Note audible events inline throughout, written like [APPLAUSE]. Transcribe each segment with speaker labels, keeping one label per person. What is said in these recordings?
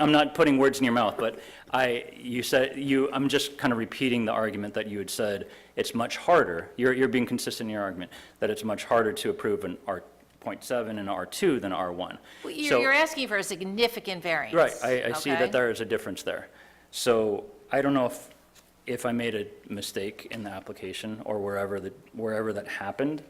Speaker 1: I'm not putting words in your mouth, but I, you said, you, I'm just kind of repeating the argument that you had said, it's much harder, you're, you're being consistent in your argument, that it's much harder to approve an R point seven and R two than R one.
Speaker 2: Well, You're, you're asking for a significant variance.
Speaker 1: Right, I, I see
Speaker 2: okay?
Speaker 1: that there is a difference there. So I don't know if, if I made a mistake in the application or wherever that, wherever that happened.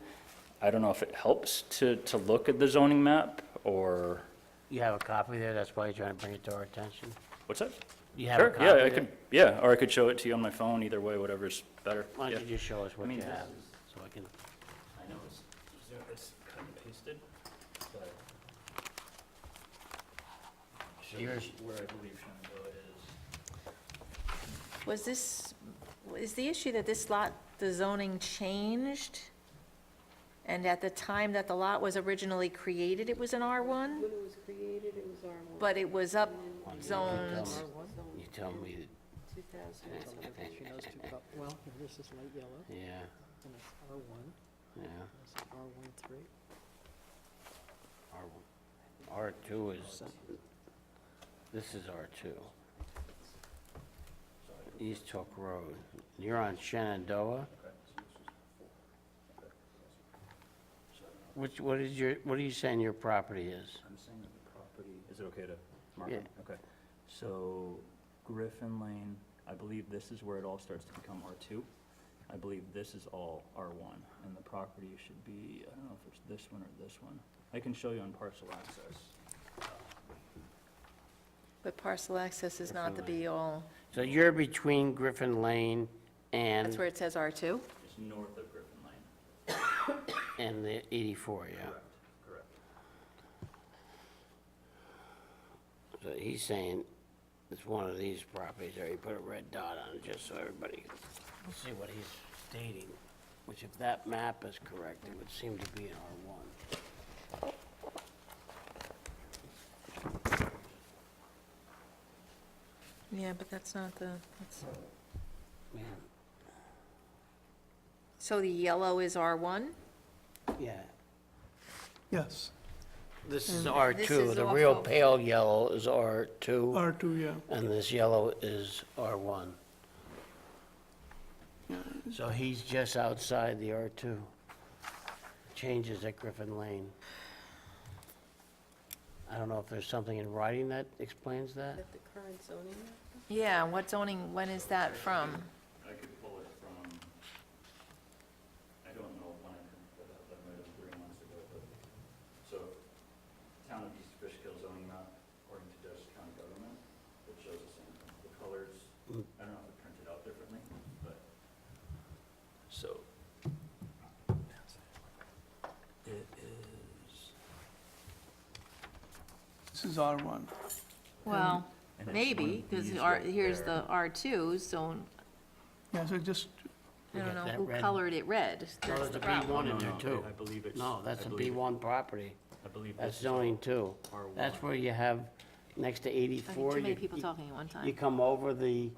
Speaker 1: I don't know if it helps to, to look at the zoning map or,
Speaker 3: You have a copy there, that's why you're trying to bring it to our attention?
Speaker 1: what's that?
Speaker 3: You have a
Speaker 1: Sure, yeah,
Speaker 3: copy
Speaker 1: I
Speaker 3: there?
Speaker 1: could, yeah, or I could show it to you on my phone, either way, whatever's better.
Speaker 3: Why
Speaker 1: Yeah.
Speaker 3: don't you just show us what
Speaker 1: mean,
Speaker 3: you
Speaker 1: this
Speaker 3: have, so I can,
Speaker 1: I know it's, it's kind of pasted, but
Speaker 3: yours,
Speaker 1: where I believe Shenandoah is.
Speaker 4: Was this, is the issue that this lot, the zoning changed? And at the time that the lot was originally created, it was an R1,
Speaker 5: When it was created, it was R1.
Speaker 4: but it was up
Speaker 3: One,
Speaker 4: zoned,
Speaker 3: two, you tell me, that-
Speaker 5: 2000.
Speaker 6: It's on the picture, those two col- Well, here, this is light yellow,
Speaker 3: [LAUGHS] yeah,
Speaker 6: and it's R1,
Speaker 3: yeah,
Speaker 6: and it's R13.
Speaker 3: R1. R2 is, this is R2. East Hook Road, you're on Shenandoah? Which, what is your, what are you saying your property is?
Speaker 1: I'm saying that the property, is it okay to mark
Speaker 3: Yeah.
Speaker 1: it? Okay. So Griffin Lane, I believe this is where it all starts to become R2. I believe this is all R1, and the property should be, I don't know if it's this one or this one. I can show you on parcel access.
Speaker 4: but parcel access is not the
Speaker 3: Definitely.
Speaker 4: be-all.
Speaker 3: So you're between Griffin Lane and?
Speaker 4: That's where it says R2?
Speaker 1: It's north of Griffin Lane.
Speaker 3: And the 84, yeah.
Speaker 1: Correct.
Speaker 3: So he's saying it's one of these properties, or he put a red dot on it just so everybody can see what he's stating, which if that map is correct, it would seem to be in R1.
Speaker 4: Yeah, but that's not the, that's-
Speaker 3: Man,
Speaker 4: so the yellow is R1?
Speaker 3: Yeah,
Speaker 7: Yes,
Speaker 3: this is
Speaker 4: This is
Speaker 3: R2. The real
Speaker 4: also-
Speaker 3: pale yellow is R2,
Speaker 7: R2, yeah.
Speaker 3: and this yellow is R1. So he's just outside the R2. Changes at Griffin Lane. I don't know if there's something in writing that explains that?
Speaker 5: At the current zoning map?
Speaker 4: Yeah, what zoning, when is that from?
Speaker 1: I could pull it from, I don't know when I put that, that might have been three months ago, but, so, town of East Fishkill zoning map, according to Dutchess County government, it shows the same, thing. the colors,
Speaker 3: Hmm.
Speaker 1: I don't know if it printed out differently, but. So. It is.
Speaker 7: This is R1.
Speaker 2: Well,
Speaker 1: And it's
Speaker 2: maybe,
Speaker 1: one of
Speaker 2: because
Speaker 1: these right
Speaker 2: here's
Speaker 1: there.
Speaker 2: the R2, so
Speaker 7: Yeah, so just,
Speaker 2: I
Speaker 3: We
Speaker 2: don't
Speaker 3: got
Speaker 2: know
Speaker 3: that
Speaker 2: who
Speaker 3: red.
Speaker 2: colored it red.
Speaker 3: No,
Speaker 2: That's
Speaker 3: Oh, there's
Speaker 2: the
Speaker 3: a
Speaker 2: problem.
Speaker 3: B1 in
Speaker 1: No,
Speaker 3: there
Speaker 1: no,
Speaker 3: too.
Speaker 1: I believe it's-
Speaker 3: No, that's
Speaker 1: I
Speaker 3: a
Speaker 1: believe
Speaker 3: B1 property.
Speaker 1: I believe
Speaker 3: That's
Speaker 1: this is
Speaker 3: zoning two.
Speaker 1: R1.
Speaker 3: That's where you have, next to
Speaker 2: I
Speaker 3: 84.
Speaker 2: think too many
Speaker 3: you-
Speaker 2: people
Speaker 3: you-
Speaker 2: talking at one time.
Speaker 3: You come over the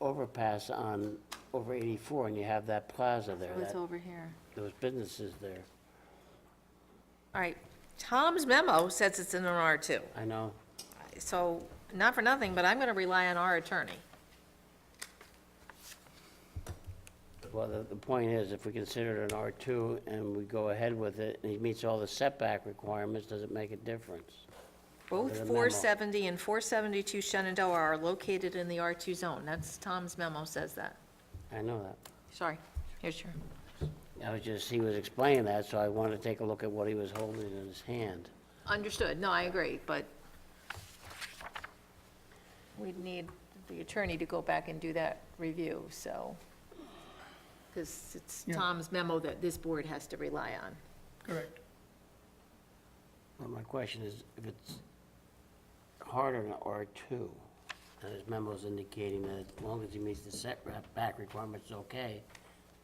Speaker 3: overpass on, over 84, and you have that plaza
Speaker 4: Oh,
Speaker 3: there,
Speaker 2: What's
Speaker 3: that-
Speaker 2: over here?
Speaker 3: those businesses there.
Speaker 4: All right, Tom's memo says it's in an R2.
Speaker 3: I know.
Speaker 4: So, not for nothing, but I'm going to rely on our attorney.
Speaker 3: Well, the, the point is, if we consider it an R2 and we go ahead with it, and he meets all the setback requirements, does it make a difference?
Speaker 4: Both
Speaker 3: There's a memo.
Speaker 4: 470 and 472 Shenandoah are located in the R2 zone. That's, Tom's memo says that.
Speaker 3: I know that.
Speaker 4: Sorry, here's your,
Speaker 3: I was just, he was explaining that, so I wanted to take a look at what he was holding in his hand.
Speaker 4: understood, no, I agree, but we'd need the attorney to go back and do that review, so, because it's
Speaker 7: Yeah.
Speaker 4: Tom's memo that this board has to rely on.
Speaker 7: correct.
Speaker 3: Well, my question is, if it's harder than R2, and his memo's indicating that as long as he meets the setback requirements, it's okay,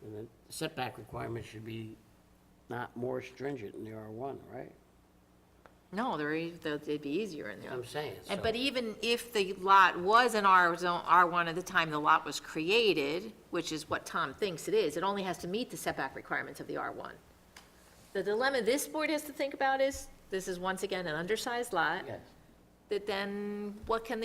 Speaker 3: then the setback requirements should be not more stringent than the R1, right?
Speaker 4: No, they're, e- they'd they'd be easier in there.
Speaker 3: I'm saying, so.
Speaker 4: And, Uh, but even if the lot was an R zone, R1 at the time the lot was created, which is what Tom thinks it is, it only has to meet the setback requirements of the R1. The dilemma this board has to think about is, this is once again an undersized lot.
Speaker 3: Yes,
Speaker 4: that then what can